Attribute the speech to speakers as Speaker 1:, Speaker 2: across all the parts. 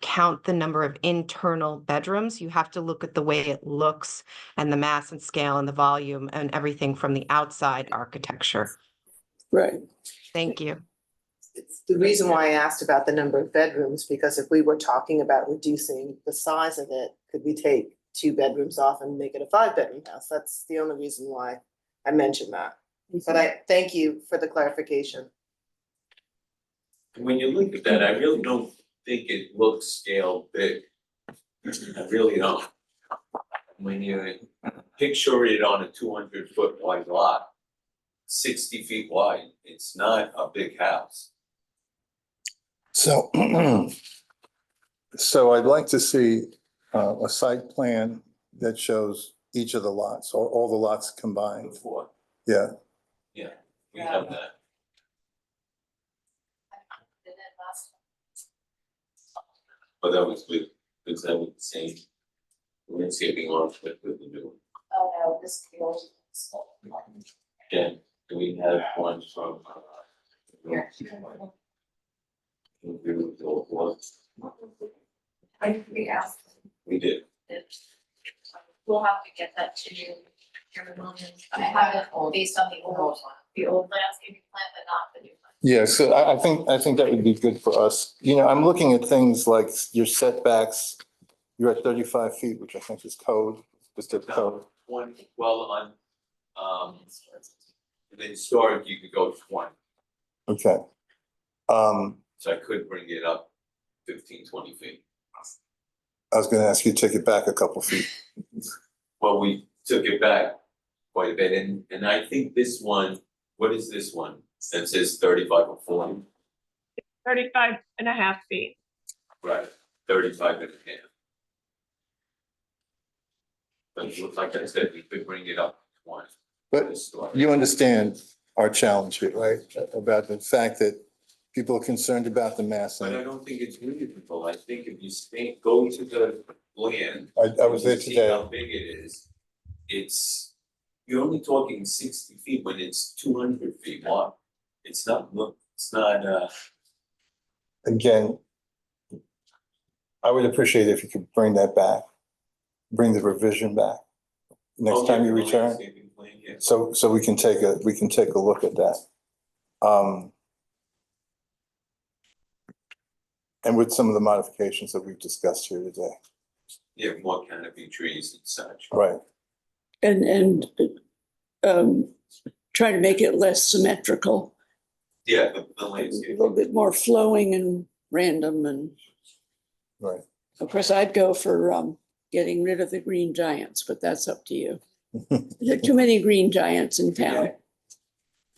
Speaker 1: count the number of internal bedrooms. You have to look at the way it looks and the mass and scale and the volume and everything from the outside architecture.
Speaker 2: Right.
Speaker 1: Thank you.
Speaker 3: It's the reason why I asked about the number of bedrooms, because if we were talking about reducing the size of it, could we take two bedrooms off and make it a five bedroom house? That's the only reason why I mentioned that. But I thank you for the clarification.
Speaker 4: When you look at that, I really don't think it looks scale big. I really don't. When you picture it on a two hundred foot wide lot, sixty feet wide, it's not a big house.
Speaker 5: So, so I'd like to see uh, a site plan that shows each of the lots, or all the lots combined.
Speaker 4: Before,
Speaker 5: Yeah,
Speaker 4: yeah, we have that. But that was with, because that was the same landscaping architect with the new
Speaker 6: Oh, no, this is the old.
Speaker 4: one. Again, we had one from. uh,
Speaker 6: Yeah.
Speaker 4: We were the old ones.
Speaker 6: I think we asked
Speaker 4: we did.
Speaker 6: that. We'll have to get that to you, Chairman Williams, but I have it based on the old, the old landscaping plan, but not the new one.
Speaker 5: yeah, so I, I think, I think that would be good for us. You know, I'm looking at things like your setbacks, you're at thirty-five feet, which I think is code, is the code.
Speaker 4: One, well, on, um, and then storage, you could go twenty,
Speaker 5: Okay. Um,
Speaker 4: so I could bring it up fifteen, twenty feet.
Speaker 5: I was gonna ask you to take it back a couple feet.
Speaker 4: Well, we took it back quite a bit, and, and I think this one, what is this one? That says thirty-five or forty?
Speaker 7: Thirty-five and a half feet.
Speaker 4: Right, thirty-five and a half. But it looks like I said, we could bring it up twenty.
Speaker 5: But You understand our challenge here, right? About the fact that people are concerned about the mass.
Speaker 4: But I
Speaker 5: and
Speaker 4: don't think it's meaningful, I think if you stay, go to the land.
Speaker 5: I, I was there
Speaker 4: you see
Speaker 5: today.
Speaker 4: How big it is, it's, you're only talking sixty feet when it's two hundred feet wide, it's not, look, it's not, uh,
Speaker 5: again, I would appreciate if you could bring that back, bring the revision back next
Speaker 4: oh,
Speaker 5: time
Speaker 4: yeah,
Speaker 5: you
Speaker 4: the
Speaker 5: return.
Speaker 4: landscaping plan, yeah.
Speaker 5: So, so we can take a, we can take a look at that. Um, and with some of the modifications that we've discussed here today,
Speaker 4: Yeah, more canopy trees and such.
Speaker 5: right?
Speaker 2: And, and um, try to make it less symmetrical,
Speaker 4: Yeah, the, the
Speaker 2: a
Speaker 4: landscape,
Speaker 2: little bit more flowing and random and.
Speaker 5: Right.
Speaker 2: Of course, I'd go for um, getting rid of the green giants, but that's up to you. There are too many green giants in town.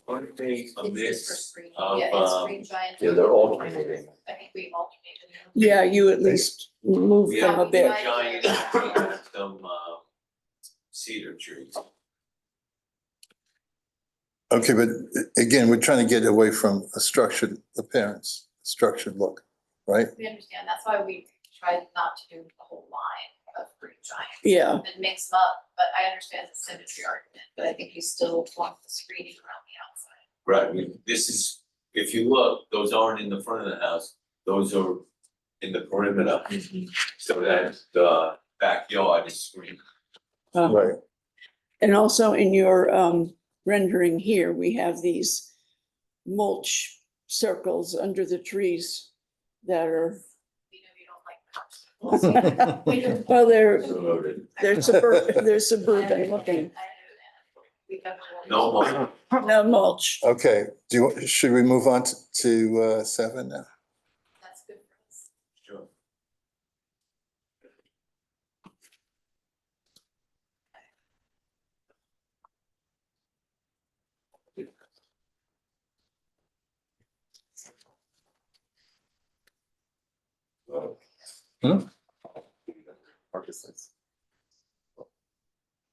Speaker 4: aren't they a
Speaker 6: It's just for
Speaker 4: mix
Speaker 6: screen-
Speaker 4: of,
Speaker 6: Yeah, it's
Speaker 4: um,
Speaker 6: screen giant.
Speaker 8: Yeah, they're alternating.
Speaker 6: I think we alternated.
Speaker 2: Yeah, you at least move
Speaker 4: we
Speaker 2: them
Speaker 4: have
Speaker 2: a
Speaker 4: a
Speaker 2: bit.
Speaker 4: giant, we have some, uh, cedar trees.
Speaker 5: Okay, but again, we're trying to get away from a structured appearance, structured look, right?
Speaker 6: We understand, that's why we tried not to do the whole line of green giant
Speaker 2: Yeah,
Speaker 6: and mix them up, but I understand the symmetry argument, but I think you still want the screening around the outside.
Speaker 4: Right, we, this is, if you look, those aren't in the front of the house, those are in the perimeter. So that the backyard is screened.
Speaker 2: uh,
Speaker 5: Right.
Speaker 2: and also in your um, rendering here, we have these mulch circles under the trees that are,
Speaker 6: We know you don't like cops. We know-
Speaker 2: well, they're,
Speaker 4: Promoted.
Speaker 2: they're suburban, they're suburban looking.
Speaker 6: I know that. We have a-
Speaker 4: No more.
Speaker 2: No mulch.
Speaker 5: Okay, do, you should we move on to- to uh, seven now?
Speaker 6: That's good for us.
Speaker 4: Sure.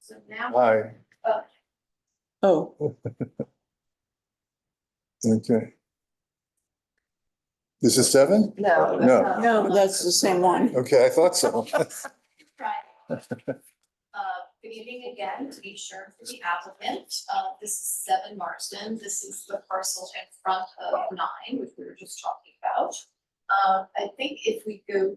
Speaker 6: So now,
Speaker 5: Hi.
Speaker 2: Oh,
Speaker 5: Okay. This is seven?
Speaker 3: No.
Speaker 5: No.
Speaker 6: uh,
Speaker 2: no, that's the same one.
Speaker 5: Okay, I thought so.
Speaker 6: Right. Uh, good evening again, to be sure for the applicant, uh, this is seven Marsden, this is the parcel in front of nine, which we were just talking about. Uh, I think if we go